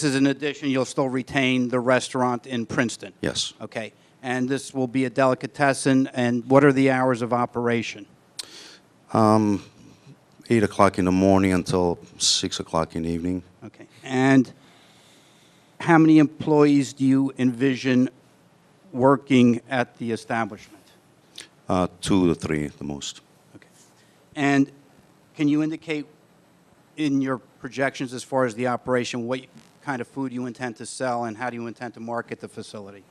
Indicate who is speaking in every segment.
Speaker 1: This is an addition, you'll still retain the restaurant in Princeton?
Speaker 2: Yes.
Speaker 1: Okay, and this will be a delicatessen, and what are the hours of operation?
Speaker 2: 8 o'clock in the morning until 6 o'clock in the evening.
Speaker 1: Okay, and how many employees do you envision working at the establishment?
Speaker 2: Uh, two to three, the most.
Speaker 1: Okay, And can you indicate in your projections as far as the operation, what kind of food you intend to sell, and how do you intend to market the facility?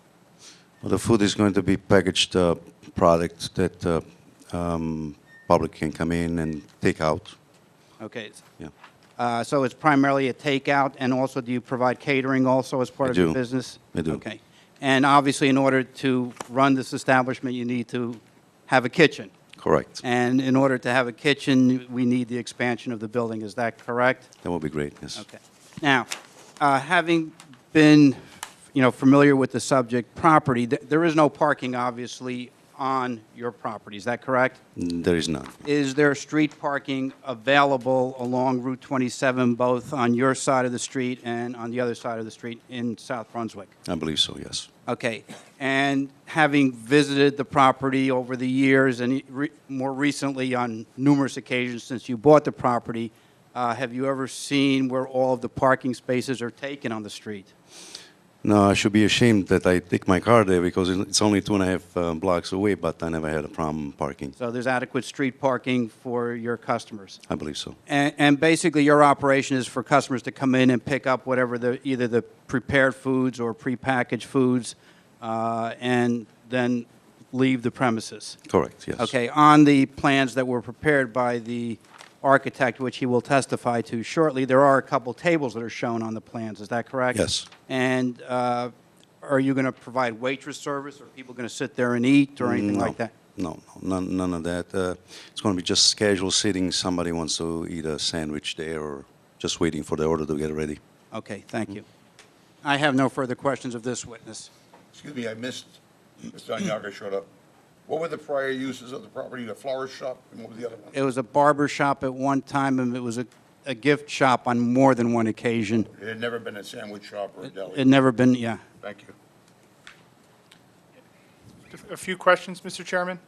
Speaker 2: Well, the food is going to be packaged uh, product that uh, um, public can come in and take out.
Speaker 1: Okay, it's-
Speaker 2: Yeah.
Speaker 1: Uh, So it's primarily a takeout, and also, do you provide catering also as part
Speaker 2: I
Speaker 1: of your
Speaker 2: do.
Speaker 1: business?
Speaker 2: I do.
Speaker 1: Okay. And obviously, in order to run this establishment, you need to have a kitchen.
Speaker 2: Correct.
Speaker 1: And in order to have a kitchen, we need the expansion of the building. Is that correct?
Speaker 2: That would be great. Yes.
Speaker 1: Okay. Now, uh, having been, you know, familiar with the subject property, th- there is no parking, obviously, on your property. Is that correct?
Speaker 2: Mm, There is none.
Speaker 1: Is there street parking available along Route 27, both on your side of the street and on the other side of the street in South Brunswick?
Speaker 2: I believe so. Yes.
Speaker 1: Okay, and having visited the property over the years and re- more recently on numerous occasions since you bought the property, uh, have you ever seen where all of the parking spaces are taken on the street?
Speaker 2: No, I should be ashamed that I take my car there because it's only two and a half uh, blocks away, but I never had a problem parking.
Speaker 1: So there's adequate street parking for your customers?
Speaker 2: I believe so.
Speaker 1: And, and basically, your operation is for customers to come in and pick up whatever the, either the prepared foods or prepackaged foods, uh, and then leave the premises?
Speaker 2: Correct. Yes.
Speaker 1: Okay, on the plans that were prepared by the architect, which he will testify to shortly, there are a couple tables that are shown on the plans, is that correct?
Speaker 2: Yes.
Speaker 1: And uh, are you going to provide waitress service, or are people going to sit there and eat, or anything
Speaker 2: no,
Speaker 1: like that?
Speaker 2: No, no, none, none of that. Uh, it's going to be just casual sitting. Somebody wants to eat a sandwich there or just waiting for the order to get ready.
Speaker 1: Okay,
Speaker 2: Mm.
Speaker 1: thank you. I have no further questions of this witness.
Speaker 3: Excuse me, I missed, Mr. Onyaka showed up. What were the prior uses of the property, the flower shop, and what was the other one?
Speaker 1: It was a barber shop at one time, and it was a a gift shop on more than one occasion.
Speaker 3: It had never been a sandwich shop or a
Speaker 1: It
Speaker 3: deli.
Speaker 1: never been, yeah.
Speaker 3: Thank you.
Speaker 4: A few questions, Mr. Chairman.
Speaker 3: Yes,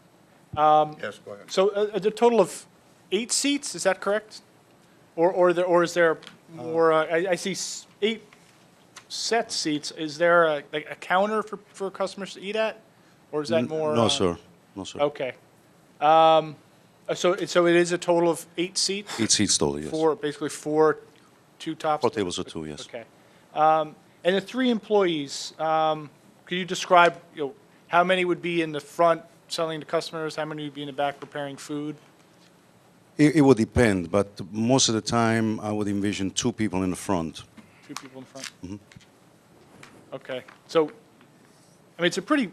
Speaker 3: go ahead.
Speaker 4: So uh, a, a total of eight seats, is that correct? Or, or there, or is there more, uh, I, I see s- eight set seats. Is there a, like a counter for, for customers to eat at? Or is that more?
Speaker 2: no,
Speaker 4: uh,
Speaker 2: sir. No, sir.
Speaker 1: oh,
Speaker 4: Okay. Um, uh, so, it- so it is a total of eight seats?
Speaker 2: Eight seats total, yes.
Speaker 4: Four, basically four, two tops?
Speaker 2: Four tables or two, yes.
Speaker 4: Okay. Um, And the three employees, um, could you describe, you know, how many would be in the front selling to customers? How many would be in the back preparing food?
Speaker 2: It, it would depend, but most of the time I would envision two people in the front.
Speaker 4: Two people in front?
Speaker 2: Mm-hmm.
Speaker 4: Okay. So, I mean, it's a pretty,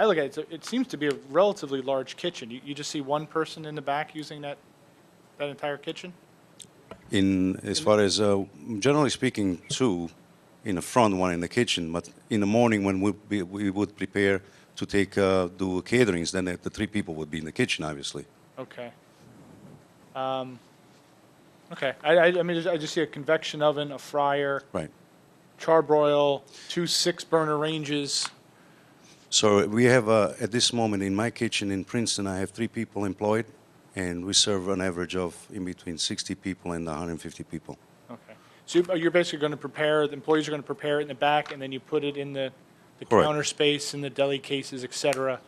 Speaker 4: I look at it, it's a- it seems to be a relatively large kitchen. You you just see one person in the back using that, that entire kitchen?
Speaker 2: In as far as uh, generally speaking, two in the front, one in the kitchen. But in the morning when we be, we would prepare to take uh, do caterings, then the, the three people would be in the kitchen, obviously.
Speaker 4: Okay. Um, Okay. I- I I mean, I just see a convection oven, a fryer.
Speaker 2: Right.
Speaker 4: charbroil, two six-burner ranges.
Speaker 2: So we have, uh, at this moment in my kitchen in Princeton, I have three people employed, and we serve an average of in between 60 people and 150 people.
Speaker 4: Okay. So you- you're basically going to prepare, the employees are going to prepare it in the back, and then you put it in the the
Speaker 2: Correct.
Speaker 4: counter space, in the deli cases, et cetera.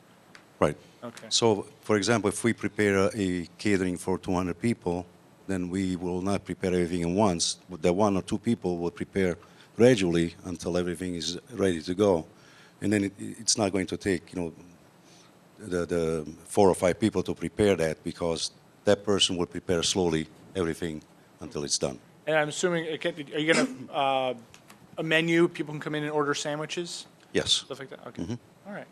Speaker 2: Right.
Speaker 4: Okay.
Speaker 2: So, for example, if we prepare a catering for 200 people, then we will not prepare everything at once. The one or two people will prepare gradually until everything is ready to go, and then it, it's not going to take you know the, the four or five people to prepare that because that person will prepare slowly everything until it's done.
Speaker 4: And I'm assuming, it can- are you going to, a menu, people can come in and order sandwiches,
Speaker 2: Yes.
Speaker 4: stuff like that? Okay. All right.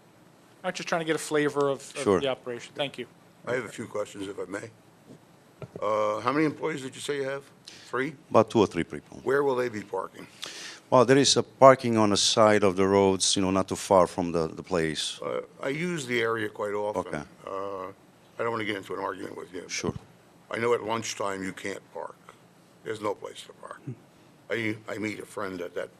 Speaker 4: I'm just trying to get a flavor of of
Speaker 2: Mm-hmm. Sure.
Speaker 4: the operation. Thank you.
Speaker 3: I have a few questions, if I may. Uh, How many employees did you say you have? Three?
Speaker 2: About two or three people.
Speaker 3: Where will they be parking?
Speaker 2: Well, there is a parking on the side of the roads, you know, not too far from the, the place.
Speaker 3: Uh, I use the area quite often.
Speaker 2: Okay.
Speaker 3: Uh, I don't want to get into an argument with you. but
Speaker 2: Sure.
Speaker 3: I know at lunchtime you can't park. There's no place to park. I I meet a friend at that